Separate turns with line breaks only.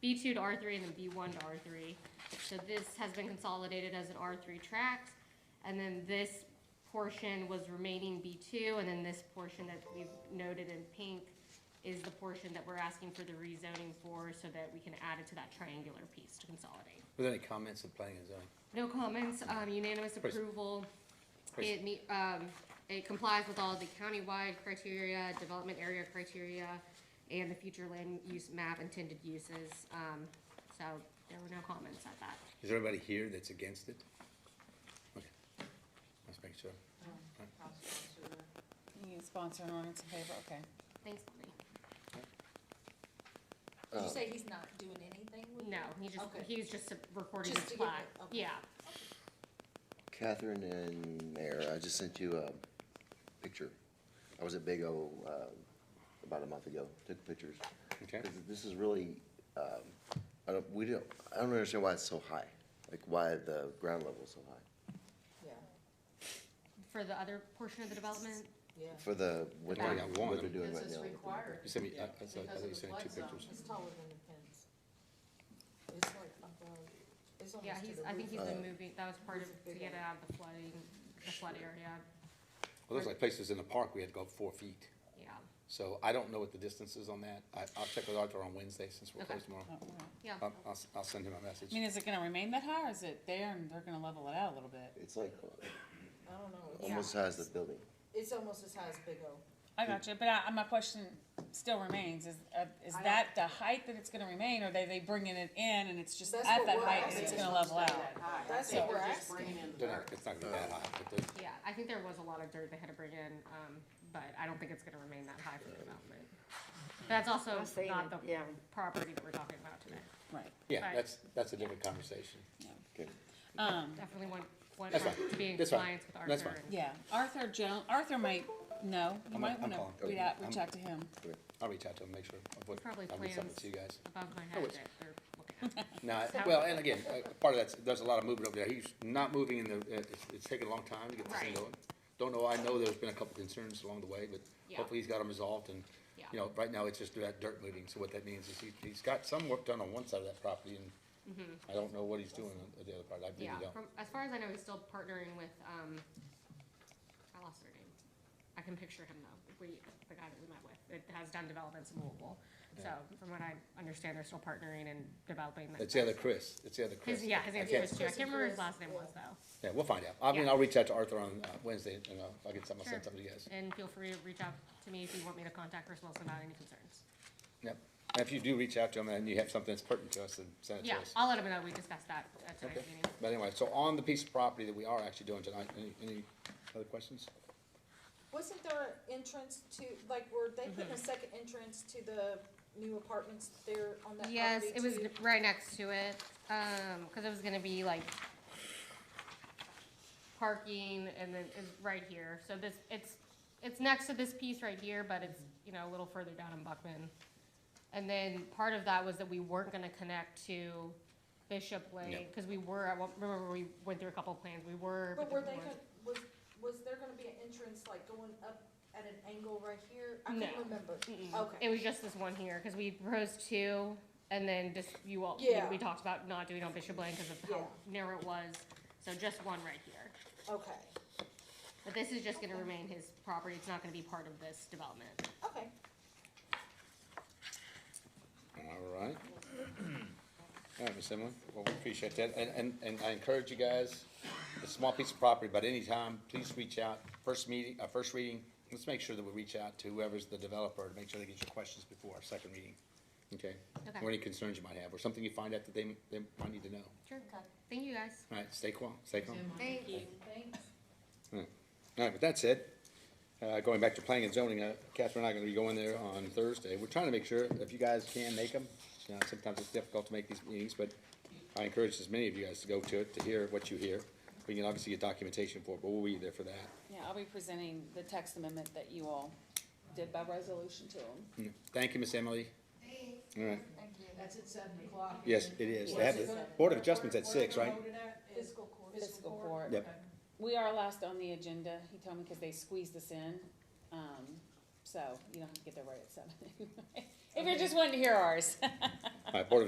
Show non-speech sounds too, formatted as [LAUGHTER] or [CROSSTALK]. B two to R three and then B one to R three. So this has been consolidated as an R three tract. And then this portion was remaining B two, and then this portion that we've noted in pink is the portion that we're asking for the rezoning for so that we can add it to that triangular piece to consolidate.
Were there any comments at planning and zoning?
No comments, um, unanimous
Praise-
approval.
praise-
It meet, um, it complies with all the countywide criteria, development area criteria, and the future land use map intended uses, um, so there were no comments at that.
Is there anybody here that's against it? Okay, let's make sure.
You can sponsor an ordinance in favor, okay.
Thanks, Lonnie.
Did you say he's not doing anything with
No, he just,
Okay.
he was just recording
Just
his
to give
flag,
it- okay.
yeah,
Catherine and Mayor, I just sent you a picture. I was at Big O uh, about a month ago, took pictures.
Okay.
This is- This is really, um, I don't, we don't, I don't understand why it's so high, like why the ground level is so high.
Yeah,
for the other portion of the development.
yeah.
For the, what
Oh, Yeah,
they're,
I got one.
what they're doing
Because
right
it's
now.
required.
You sent me, I, I
because
saw- I
of
thought you
the
sent me
flood
two
zone.
pictures.
It's taller than the fence. It's like above, it's
Yeah,
almost to
he's,
the
I think
roof.
he's been
Uh,
moving, that was part of, to get out of the flooding, the flood area,
Well, there's like places in the park, we had to go up four feet.
yeah,
So I don't know what the distance is on that. I, I'll check with Arthur on Wednesday since we're
Okay.
closed tomorrow.
Oh, wow.
yeah.
I'll, I'll, si will send him a message.
I mean, is it gonna remain that high, or is it there and they're gonna level it out a little bit?
It's like
I don't know.
almost as high as the building.
It's almost as high as Big O.
I got you, but I, my question still remains, is, uh, is
I don't-
that the height that it's gonna remain, or they, they bringing it in and it's just at
That's
that
what we're
height and
asking.
it's gonna level out?
That's what we're asking.
They're not- It's not gonna be that high, but there's,
Yeah, I think there was a lot of dirt they had to bring in, um, but I don't think it's gonna remain that high for the development. That's also
I've seen
not
it,
the
yeah.
property that we're talking about today.
Right,
yeah,
Right.
that's, that's a different conversation.
Okay.
um,
Definitely want, want
That's
us
fine.
to be in
That's fine.
compliance with
That's
Arthur.
fine.
and-
yeah, Arthur Jones, Arthur might, know. you
I'm-
might
I'm
wanna
calling.
read out, reach
I'm-
out to him.
I'll reach out to him, make sure. of what-
Probably
I'll reach out
plans.
to you guys.
Above my head
Oh, it's-
that they're looking at.
No, I- well, and again, uh, part of that's, there's a lot of movement over there. He's not moving in the, uh, it's, it's taking a long time to get this thing
Right.
going. Don't know, I know there's been a couple concerns along the way, but
Yeah.
hopefully he's got them resolved and,
Yeah.
you know, right now it's just that dirt moving. So what that means is he, he's got some work done on one side of that property and I don't know what he's doing on the other part. I really
Mm-hmm. Yeah,
don't.
from, as far as I know, he's still partnering with, um, I lost her name. I can picture him though, we, the guy that we met with, it has done developments in Louisville. So from what I understand, they're still partnering and developing that.
It's the other Chris, it's the other Chris.
His, yeah, his
I
name
can't-
was too. I can't remember his last name
Yeah.
was though.
Yeah, we'll find out. I mean,
Yeah.
I'll reach out to Arthur on uh, Wednesday and I'll, I'll get something, I'll
Sure.
send something to you guys.
And feel free to reach out to me if you want me to contact Chris Wilson about any concerns.
Yep. And if you do reach out to him and you have something that's pertinent to us, then send it to
Yeah,
us.
I'll let him know. We discussed that at
Okay.
tonight's meeting.
But anyway, so on the piece of property that we are actually doing tonight, any, any other questions?
Wasn't there an entrance to, like, were they putting
Mm-hmm.
a second entrance to the new apartments there on that property too?
Yes, it was right next to it, um, cause it was gonna be like parking and then it's right here. So this, it's, it's next to this piece right here, but it's, you know, a little further down in Buckman. And then part of that was that we weren't gonna connect to Bishop Lane, cause we were, at one remember we went through a couple of plans, we were.
But were
we
they,
weren't.
gonna- was, was there gonna be an entrance like going up at an angle right here? I can't
No.
remember.
Mm-mm.
Okay.
It was just this one here, cause we proposed two, and then just, you all, we-
Yeah.
we talked about not doing on Bishop Lane because of how
Yeah.
narrow it was, so just one right here.
Okay,
But this is just gonna remain his property, it's not gonna be part of this development.
okay.
All right. All right, Ms. Emily, well, we appreciate that, and, and, and I encourage you guys, it's a small piece of property, but anytime, please reach out, first meeting, uh, first reading, let's make sure that we reach out to whoever's the developer to make sure they get your questions before our second reading, okay?
Okay.
Or any concerns you might have, or something you find out that they, they might need to know.
Sure. Thank you, guys.
All right, stay calm, stay calm.
Thank you.
Thanks.
Hmm. All right, with that said, uh, going back to planning and zoning, uh, Catherine and I are gonna be going there on Thursday. We're trying to make sure, if you guys can make them, you know, sometimes it's difficult to make these meetings, but I encourage as many of you guys to go to it, to hear what you hear. We can obviously get documentation for it, but we'll be there for that.
Yeah, I'll be presenting the text amendment that you all did by resolution to them.
Yeah. Thank you, Miss Emily. All right,
That's at seven o'clock.
yes, it is. They have the Board of Adjustments at six, right?
Fiscal court.
Fiscal court.
Yep.
We are last on the agenda, he told me, because they squeezed us in, um, [LAUGHS] so you don't have to get there right at seven. If you're just wanting to hear ours.
All right, Board of